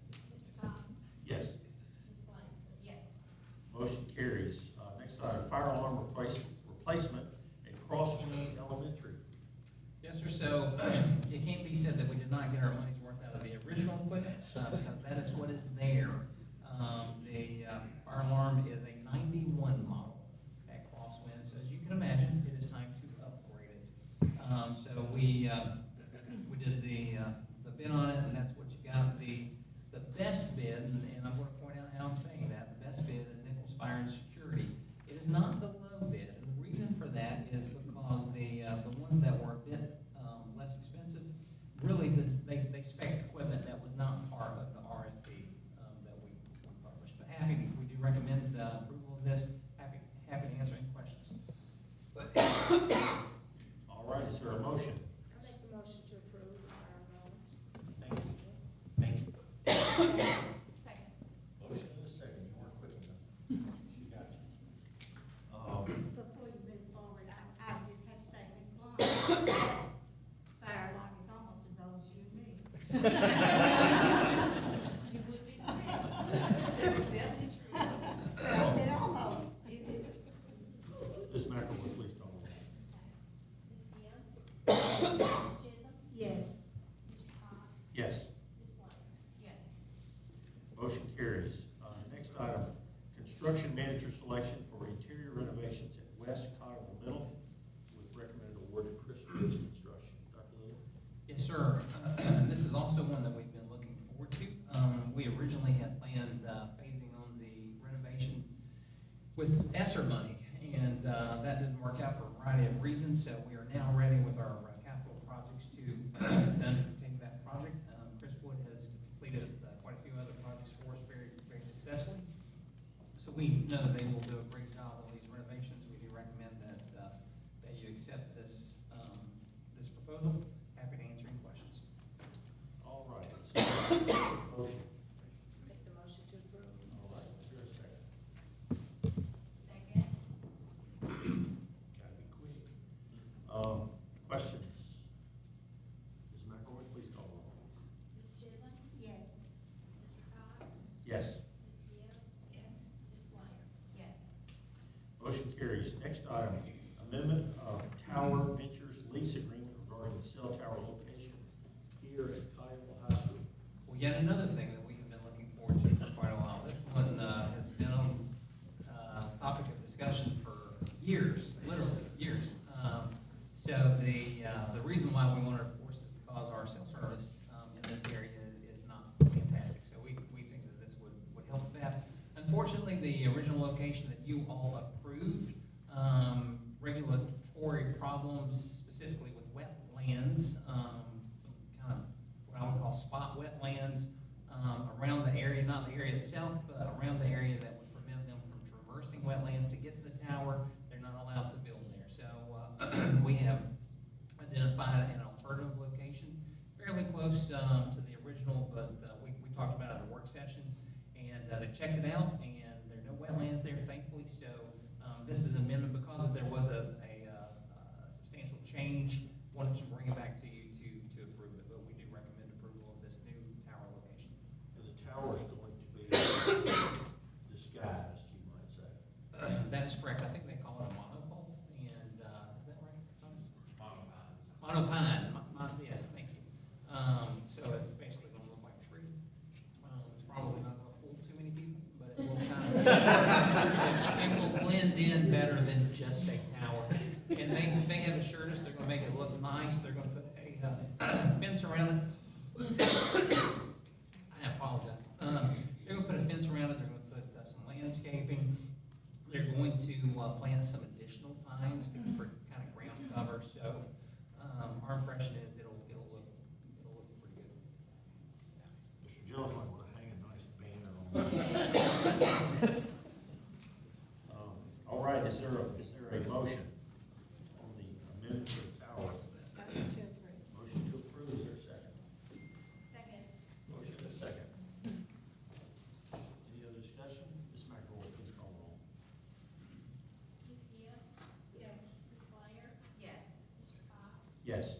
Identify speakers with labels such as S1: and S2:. S1: Uh,
S2: uh, Um, Um, uh, uh, um, um, uh,
S3: Second.
S1: Motion in a second, you weren't quick enough. She got you. Um,
S4: Before you move forward, I, I just have to say, Miss Blunt, that fire alarm is almost as old as you and me.
S3: You would be. Definitely true.
S4: I said almost. It- it-
S1: Ms. McElroy, please call the roll.
S5: Ms. Gibbs? Ms. Chisholm?
S4: Yes.
S5: Mr. Cox?
S1: Yes,
S5: Ms. White?
S3: Yes.
S1: motion carries. Uh, next item, construction manager selection for interior renovations at West Cotterville Middle with recommended award to Chris Ridge Construction. Dr. Little?
S2: Yes, sir. This is also one that we've been looking forward to. Um, We originally had planned uh, phasing on the renovation with ESSER money, and uh, that didn't work out for a variety of reasons, so we are now ready with our uh, capital projects to to undertake that project. Um, Chris Wood has completed uh, quite a few other projects for us very, very successfully. So we know that they will do a great job on these renovations. We do recommend that, uh, that you accept this, um, this proposal. Happy to answer any questions.
S1: All right. So, Motion.
S3: Make the motion to approve.
S1: All right, is there a second?
S3: Second.
S1: Gotta be quick. Um, questions? Ms. McElroy, please call the roll.
S5: Ms. Chisholm?
S4: Yes.
S5: Mr. Cox?
S1: Yes.
S5: Ms. Gibbs?
S3: Yes.
S5: Ms. White?
S3: Yes.
S1: Motion carries. Next item, amendment of Tower Ventures lease agreement regarding the cell tower location here at Kiowa High School.
S2: Well, yet another thing that we have been looking forward to for quite a while. This one, uh, has been on, uh, topic of discussion for years, literally years. Um, So the, uh, the reason why we want to enforce is because our cell service, um, in this area is not fantastic. So we, we think that this would, would help that. Unfortunately, the original location that you all approved, um, regulatory problems specifically with wetlands, um, some kind of what I would call spot wetlands um, around the area, not the area itself, but around the area that would prevent them from traversing wetlands to get to the tower. They're not allowed to build there. So uh, we have identified an alternative location fairly close um, to the original, but uh, we we talked about it at a work session. And uh, they checked it out, and there are no wetlands there thankfully. So um, this is amendment because there was a a, uh, uh, substantial change. Wanted to bring it back to you to to approve it, but we do recommend approval of this new tower location.
S1: And the tower is going to be disguised, you might say.
S2: Uh, That is correct. I think they call it a monopole, and, uh, is that right? Thomas? Monopine, mo- mon- yes, thank you. Um, so it's basically gonna look like a tree. Um, it's probably not gonna fool too many people, but it will kind of, it will blend in better than just a tower. And they, they have assured us they're gonna make it look nice, they're gonna put a uh, fence around it. I apologize. Um, they're gonna put a fence around it, they're gonna put uh, some landscaping, they're going to uh, plant some additional pines for kind of ground cover, so, um, our impression is it'll, it'll look, it'll look pretty good.
S1: Mr. Jones might want to hang a nice banner on that. Um, All right, is there a, is there a motion on the amendment to the tower?
S4: Motion to approve.
S1: Motion to approve, is there a second?
S3: Second.
S1: Motion and a second. Any other discussion? Ms. McElroy, please call the roll.
S5: Ms. Gibbs?
S4: Yes.
S5: Ms. White?
S3: Yes.
S5: Mr. Cox?
S1: Yes. Uh,